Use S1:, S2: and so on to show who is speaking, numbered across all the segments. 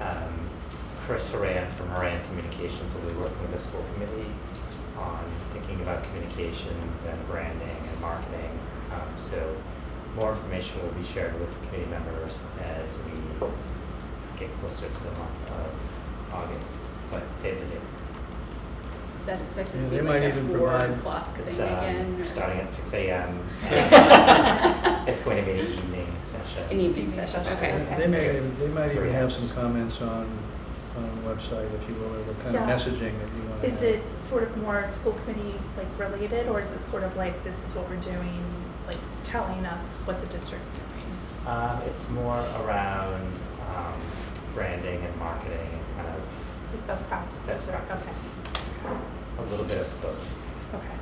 S1: Um, Chris Horan from Horan Communications will be working with the school committee on thinking about communications and branding and marketing. Um, so more information will be shared with the committee members as we get closer to the month of August, but save the date.
S2: Is that expected
S3: Yeah,
S2: to be
S3: they
S2: like
S3: might
S2: a
S3: even
S2: four
S3: provide-
S2: o'clock
S1: It's,
S2: thing again?
S1: um,
S2: or-
S1: starting at six AM. It's going to be an evening session.
S2: An evening session, okay.
S3: They may, they might even have some comments on, on the website, if you will, or the kind of
S4: Yeah.
S3: messaging that you want to
S4: Is
S3: have.
S4: it sort of more school committee like related, or is it sort of like this is what we're doing, like telling us what the district's doing?
S1: Um, it's more around, um, branding and marketing and kind of
S4: Like best practices?
S1: Best
S4: or-
S1: practices. a little bit of both.
S4: Okay, okay.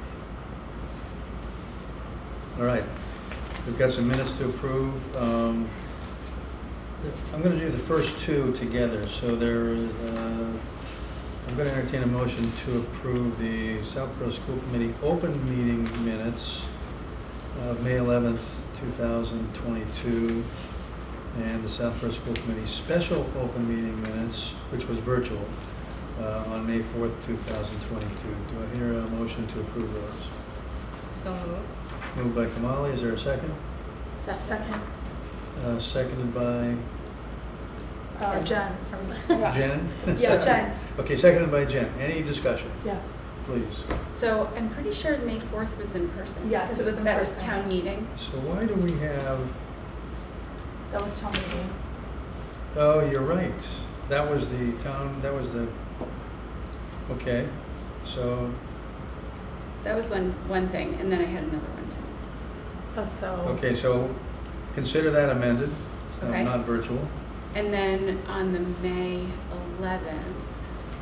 S3: All right, we've got some minutes to approve. Um, I'm going to do the first two together, so there, is, uh, I'm going to entertain a motion to approve the Southborough School Committee open meeting minutes of May 11th, 2022, and the Southborough School Committee special open meeting minutes, which was virtual, uh, on May 4th, 2022. Do I hear a motion to approve those?
S2: So moved.
S3: Moved by Kamali, is there a second?
S4: Second,
S3: Uh, Seconded by
S4: uh, Jen, are we- yeah.
S3: Jen?
S2: Yeah,
S4: Jen.
S3: Okay, seconded by Jen. Any discussion,
S4: Yeah,
S3: please?
S2: So I'm pretty sure May fourth was in person.
S4: Yes, it was in
S2: That was
S4: person.
S2: town meeting.
S3: So why do we have,
S4: that was town meeting.
S3: oh, you're right. That was the town, that was the, okay, so,
S2: That was one, one thing, and then I had another one too.
S4: Oh, so.
S3: okay, so consider that amended, uh,
S2: Okay.
S3: not virtual.
S2: And then on the May eleventh,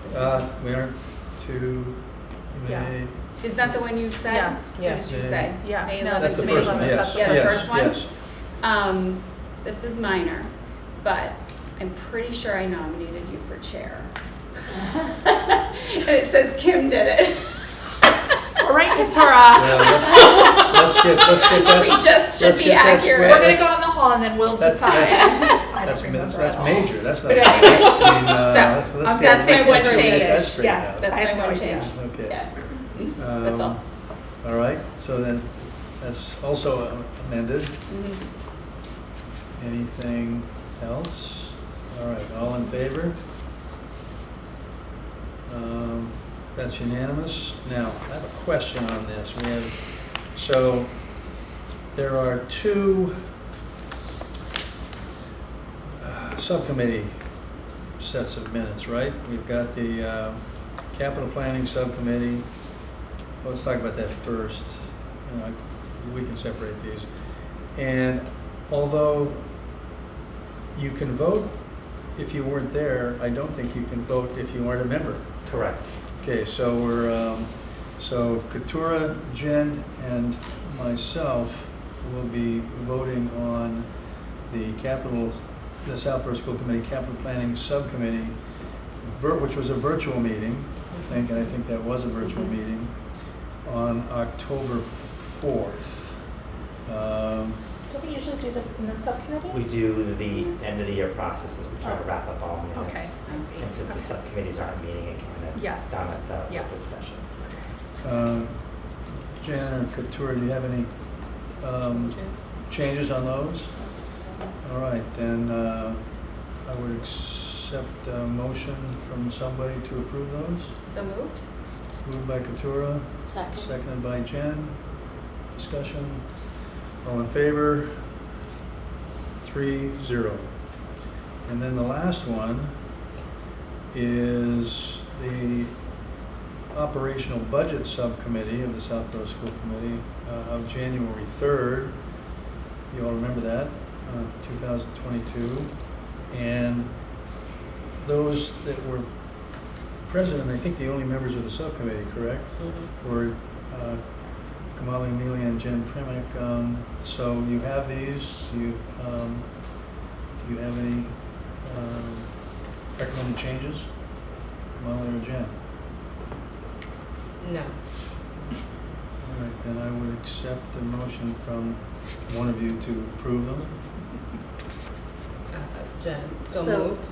S2: this
S3: Uh, We aren't to,
S4: Yeah.
S3: may,
S2: is- is that the one you said?
S4: Yes.
S2: What did you
S3: Yes.
S2: say?
S4: Yeah,
S2: May
S4: no,
S2: eleventh,
S3: that's the
S2: May
S4: May
S3: first one,
S4: 11th,
S3: yes,
S4: that's the
S2: Yeah, the
S3: yes,
S2: first one?
S3: yes.
S2: Um, this is minor, but I'm pretty sure I nominated you for chair. And it says Kim did it.
S4: All right, Katara.
S3: Yeah, let's- Let's get, let's get
S2: We
S3: that,
S2: just should
S3: let's
S2: be
S3: get
S2: accurate.
S3: that squared.
S4: We're gonna go in the hall and then we'll
S3: That-
S4: decide.
S3: that's-
S4: I
S3: that's,
S4: don't
S3: that's
S4: remember at
S3: that's
S4: all.
S3: major, that's not.
S2: But
S3: I
S2: anyway,
S3: mean, uh,
S2: so,
S3: let's- let's
S2: um,
S3: get-
S2: that's my
S3: let's
S2: one
S3: get that
S2: change.
S3: straightened out.
S4: Yes,
S2: That's
S4: I have
S2: my
S4: no
S2: one
S4: idea.
S2: change.
S3: Okay.
S2: Yeah. That's all.
S3: Um, All right, so then, that's also uh, amended.
S2: Mhm.
S3: Anything else? All right, all in favor? Um, That's unanimous. Now, I have a question on this. We have, so, there are two uh, subcommittee sets of minutes, right? We've got the uh, capital planning subcommittee. Well, Let's talk about that first. You know, We can separate these. And although you can vote if you weren't there, I don't think you can vote if you aren't a member.
S1: Correct.
S3: Okay, so we're, um, so Katura, Jen, and myself will be voting on the capital, the Southborough School Committee Capital Planning Subcommittee, vir- which was a virtual meeting, I think, and I think that was a virtual
S2: Mhm.
S3: meeting, on October fourth. Um,
S4: Don't we usually do this in the subcommittee?
S1: We do the end of the year processes, we try to wrap up all minutes.
S4: Okay,
S2: I see.
S1: And since the subcommittees aren't meeting again,
S4: Yes.
S1: it's done at the
S4: Yes.
S1: open session.
S3: um, Jen or Katura, do you have any, um,
S2: Mm-hmm.
S3: changes on those? All right, then uh, I would accept a motion from somebody to approve those.
S2: So moved?
S3: Moved by Katura,
S2: Second.
S3: seconded by Jen. Discussion, all in favor? Three, zero. And then the last one is the Operational Budget Subcommittee of the Southborough School Committee uh, of January 3rd. You all remember that, uh, 2022. And those that were present, and I think the only members of the subcommittee, correct?
S5: Mm-hmm.
S3: Were uh, Kamali Amelia and Jen Primick. Um, So you have these, do you, um, do you have any um, recommended changes? Kamali or Jen?
S5: No.
S3: All right, then I would accept a motion from one of you to approve them.
S5: Uh, Jen, so
S2: So-
S5: moved.